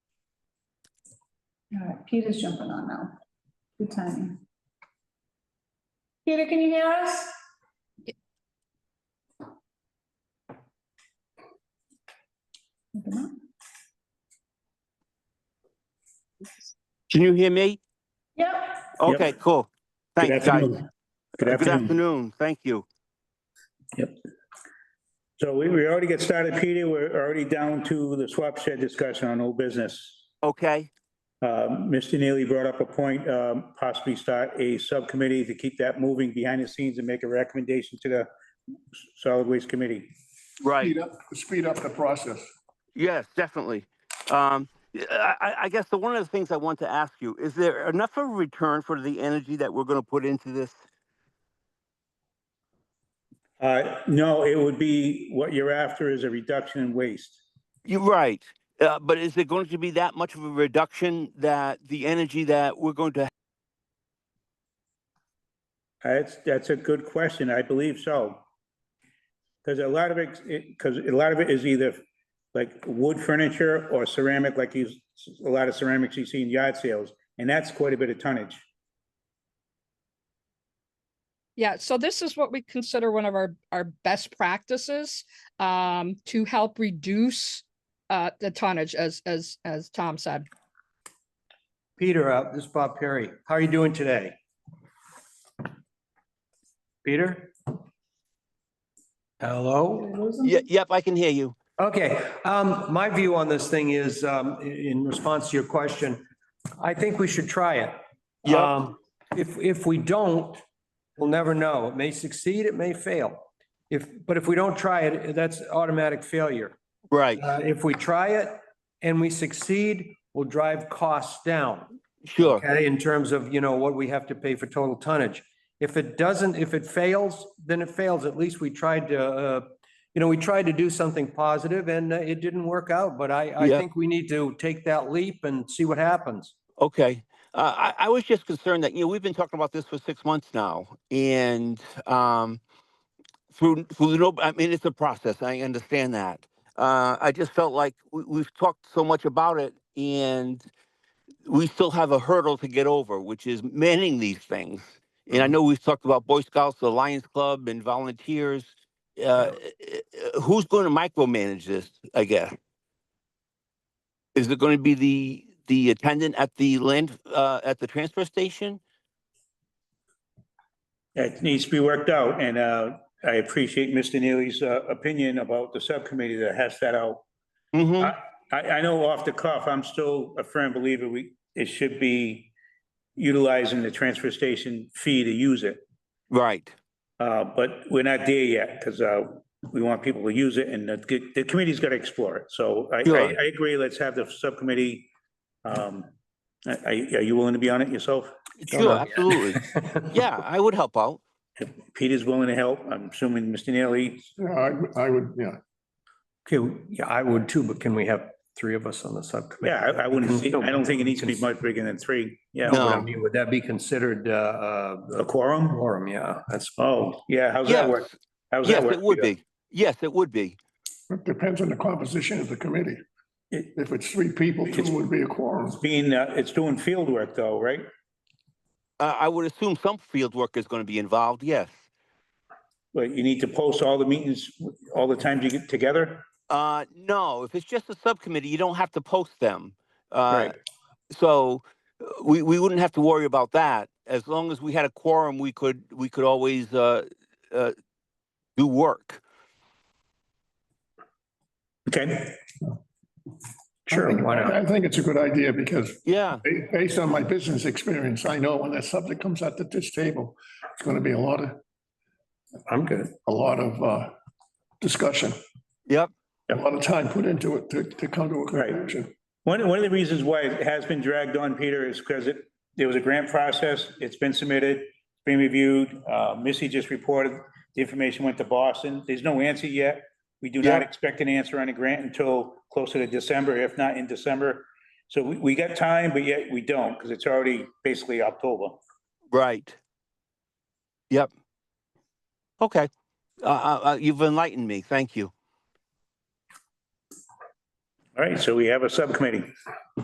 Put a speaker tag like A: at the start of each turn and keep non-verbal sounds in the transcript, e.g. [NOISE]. A: All right, Peter's jumping on now. Good timing. Peter, can you hear us? Look him up.
B: Can you hear me?
A: Yep,
B: Okay, cool.
C: Good
B: Thanks, guys.
C: afternoon. Good afternoon.
B: Thank you.
C: So we, we already get started, Peter. We're already down to the swap shed discussion on old business.
B: Okay,
C: Um, Mr. Neely brought up a point, um, possibly start a subcommittee to keep that moving behind the scenes and make a recommendation to the solid waste committee.
B: right.
D: Speed up, speed up the process.
B: Yes, definitely. Um, I, I- I guess the, one of the things I want to ask you, is there enough of a return for the energy that we're going to put into this?
C: Uh, no, it would be, what you're after is a reduction in waste.
B: You're right. Uh, but is there going to be that much of a reduction that the energy that we're going to,
C: That's, that's a good question. I believe so. Because a lot of it, because a lot of it is either like wood furniture or ceramic, like you, a lot of ceramics you see in yard sales, and that's quite a bit of tonnage.
E: Yeah, so this is what we consider one of our, our best practices um, to help reduce uh, the tonnage, as, as, as Tom said.
F: Peter, uh, this is Bob Perry. How are you doing today? Peter? Hello?
A: did I lose him?
B: Ye- yep, I can hear you.
F: Okay, um, my view on this thing is, um, i- in response to your question, I think we should try it.
B: Yep.
F: Um, If, if we don't, we'll never know. It may succeed, it may fail. If, but if we don't try it, that's automatic failure.
B: Right.
F: Uh, if we try it and we succeed, we'll drive costs down.
B: Sure.
F: Okay, in terms of, you know, what we have to pay for total tonnage. If it doesn't, if it fails, then it fails. At least we tried to, uh, you know, we tried to do something positive and uh, it didn't work out, but I, I
B: Yeah.
F: think we need to take that leap and see what
C: [LAUGHS]
F: happens.
B: Okay. Uh, I, I was just concerned that, you know, we've been talking about this for six months now and, um, through, through no, I mean, it's a process. I understand that. Uh, I just felt like we, we've talked so much about it and we still have a hurdle to get over, which is manning these things. And I know we've talked about Boy Scouts, the Lions Club and volunteers. Uh, uh, who's going to micromanage this, I guess? Is it going to be the, the attendant at the land, uh, at the transfer station?
C: It needs to be worked out, and uh, I appreciate Mr. Neely's uh, opinion about the subcommittee that has that out.
B: Mm-hmm.
C: I, I know off the cuff, I'm still a firm believer we, it should be utilizing the transfer station fee to use it.
B: Right.
C: Uh, But we're not there yet, because we want people to use it, and the, the committee's got to explore it. So I, I-
B: Sure.
C: I agree, let's have the subcommittee. Um, Are, are- are you willing to be on it yourself?
F: Don't
B: Sure,
F: know.
B: absolutely. Yeah, I would help out.
C: If Peter's willing to help, I'm assuming Mr. Neely.
D: Yeah, I, I would, yeah.
F: Okay, yeah, I would too, but can we have three of us on the subcommittee?
C: Yeah, I I wouldn't, see- I don't think it needs to be much bigger than three, yeah.
F: No, but I
B: No.
F: mean, would that be considered, uh,
C: A
F: uh,
C: quorum?
F: quorum? Yeah, that's.
C: Oh, yeah, how's that
B: Yes,
C: work? How's that
B: yes,
C: work?
B: it would
C: Peter?
B: be. Yes, it would be.
D: It depends on the composition of the committee.
C: It-
D: If it's three people, two would be a quorum.
C: It's being, uh, it's doing field work though, right?
B: Uh, I would assume some field work is going to be involved, yes.
C: But you need to post all the meetings, all the times you get together?
B: Uh, no, if it's just a subcommittee, you don't have to post them. Uh,
C: Right.
B: so uh, we, we wouldn't have to worry about that. As long as we had a quorum, we could, we could always, uh, uh, do work.
C: Okay,
F: Sure, why not?
D: I think it's a good idea because
B: Yeah,
D: ba- based on my business experience, I know when that subject comes out at this table, it's going to be a lot of,
F: I'm good.
D: a lot of uh, discussion.
B: Yep.
D: A lot of time put into it to, to come to a
C: Right.
D: conclusion.
C: one, one of the reasons why it has been dragged on, Peter, is because it, there was a grant process, it's been submitted, been reviewed, uh, Missy just reported, the information went to Boston, there's no answer yet. We do not
B: Yeah.
C: expect an answer on a grant until closer to December, if not in December. So we, we got time, but yet we don't, because it's already basically October.
B: right. Yep. Okay. Uh, uh, uh, you've enlightened me. Thank you.
C: All right, so we have a subcommittee.